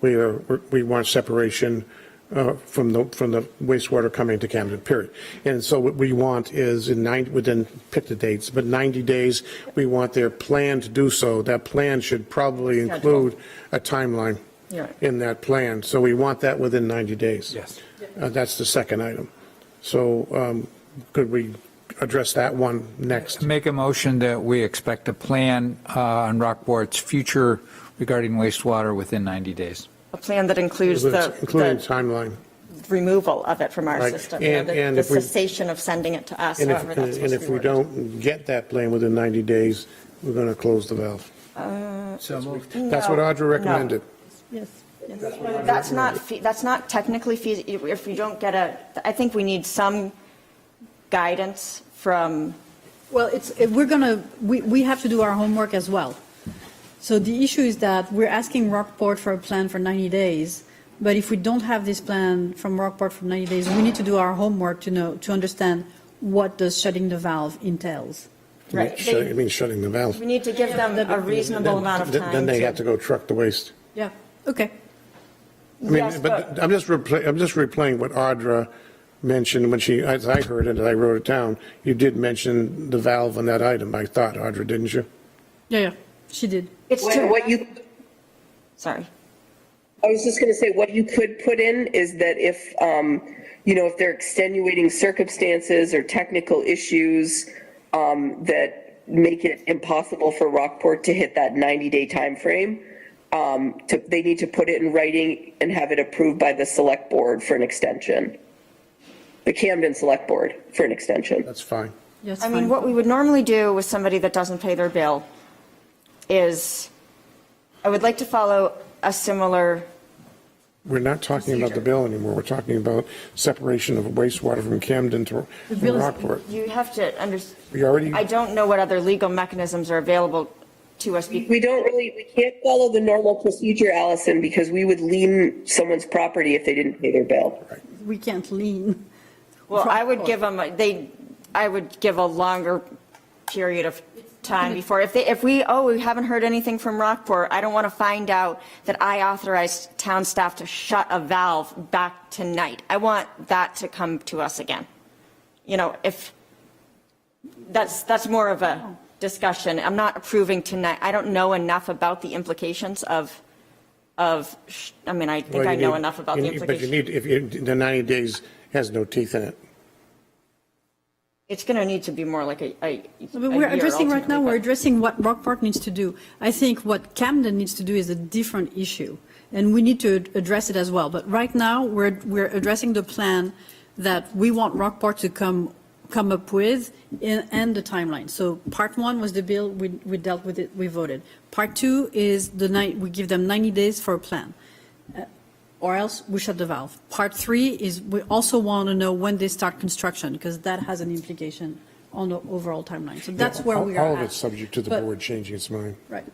we are, we want separation uh, from the, from the wastewater coming to Camden, period. And so what we want is in nine, within, pick the dates, but 90 days, we want their plan to do so. That plan should probably twelve. include a timeline You're right. in that plan. So we want that within 90 days. Yes. Uh, That's the second item. So um, could we address that one next? Make a motion that we expect a plan uh, on Rockport's future regarding wastewater within 90 days. A plan that includes the, Including the timeline. removal of it from our Right. system, you know, And- the and the if we- cessation of sending it to us, And if, however that's and supposed to if be we worded. don't get that plan within 90 days, we're going to close the valve. So moved. That's what Uh, No, Audra no. recommended. That's not, fe- that's not technically feasible, if you don't get a, I think we need some guidance from, Well, it's, if we're going to, we, we have to do our homework as well. So the issue is that we're asking Rockport for a plan for 90 days, but if we don't have this plan from Rockport for 90 days, we need to do our homework to know, to understand what does shutting the valve entails. right? Shut- They- It means shutting the valve. We need to give them a reasonable amount of Then- time. Then they to- have to go truck the waste. Yeah, okay. I mean, Yes, but I'm just replaying, I'm just replaying what Audra mentioned when she, as I heard it, and I wrote it down. You did mention the valve on that item, I thought, Audra, didn't you? Yeah, yeah, she did. It's What too, what you, sorry. I was just going to say, what you could put in is that if, um, you know, if there are extenuating circumstances or technical issues um, that make it impossible for Rockport to hit that 90-day timeframe, um, to- they need to put it in writing and have it approved by the select board for an extension. The Camden Select Board for an extension. That's fine. Yes, I mean, fine. what we would normally do with somebody that doesn't pay their bill is, I would like to follow a similar, We're not talking about the bill anymore. We're talking about separation of wastewater from Camden to from bill is- Rockport. you have to understand. We already- I don't know what other legal mechanisms are available to us. be- We don't really, we can't follow the normal procedure, Allison, because we would lien someone's property if they didn't pay their bill. We can't lean. Well, I would give them, they, I would give a longer period of time before, if they, if we, oh, we haven't heard anything from Rockport, I don't want to find out that I authorized town staff to shut a valve back tonight. I want that to come to us again. You know, if, that's, that's more of a discussion. I'm not approving tonight. I don't know enough about the implications of, of, sh- I mean, I think Well, I you know need- enough about you the need- implications. But you need, if you, the 90 days has no teeth in it. It's going to need to be more like a, a. But a we're year addressing right now, ultimately, we're but- addressing what Rockport needs to do. I think what Camden needs to do is a different issue, and we need to ad- address it as well. But right now, we're, we're addressing the plan that we want Rockport to come, come up with and, and the timeline. So part one was the bill, we, we dealt with it, we voted. Part two is the night, we give them 90 days for a plan or else we shut the valve. Part three is we also want to know when they start construction because that has an implication on the overall timeline. So that's where we are All of at. it's subject to the But- board changing its mind. Right.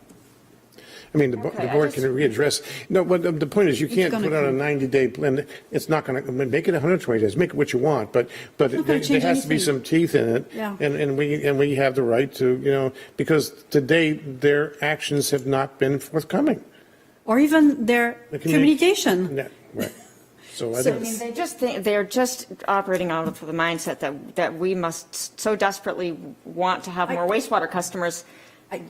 I mean, the bo- the Okay, I board just- can readdress, no, but the- the point is, you can't gonna put out a come- 90-day plan, it's not going to, make it 120 days, make it what you want, but, but It's not there gonna there change has to be anything. some teeth in it. Yeah. And, and we, and we have the right to, you know, because to date, their actions have not been forthcoming. Or even their The communi- communication. No, Right. So I I think, mean, they just think, they're just operating out of the mindset that, that we must so desperately want to have more wastewater customers,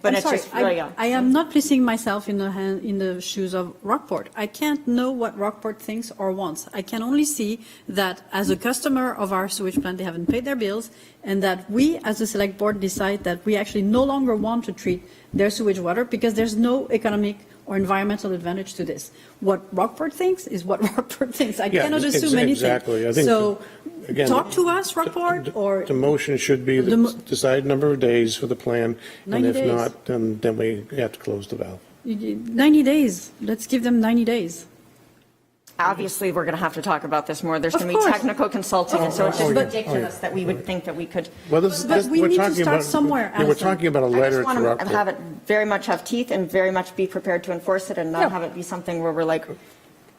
but I'm it's sorry, just I- really. a- I am not placing myself in the hand, in the shoes of Rockport. I can't know what Rockport thinks or wants. I can only see that as a customer of our sewage plant, they haven't paid their bills, and that we, as a select board, decide that we actually no longer want to treat their sewage water because there's no economic or environmental advantage to this. What Rockport thinks is what Rockport thinks. I Yeah, cannot ex- assume anything. exactly. I think So, again, talk to us, Rockport, or the motion should be The mo- the decided number of days for the plan, and 90 if days. not, then, then we have to close the valve. 90 days. Let's give them 90 days. Obviously, we're going to have to talk about this more. There's Of going to be course. technical consulting, and so it's just Oh, yeah. ridiculous that we would think that we could. Well, this, But this, we we're need to talking start about. somewhere, yeah, We're Allison. talking about a I letter just to want to Rockport. have it very much have teeth and very much be prepared to enforce it and Yeah. not have it be something where we're like,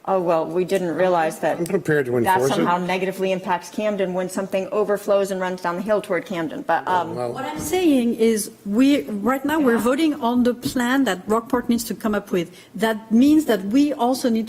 oh, well, we didn't realize that. I'm prepared to That enforce it. somehow negatively impacts Camden when something overflows and runs down the hill toward Camden, but, um, What I'm saying is, we, right now, we're voting on the plan that Rockport needs to come up with. That means that we also need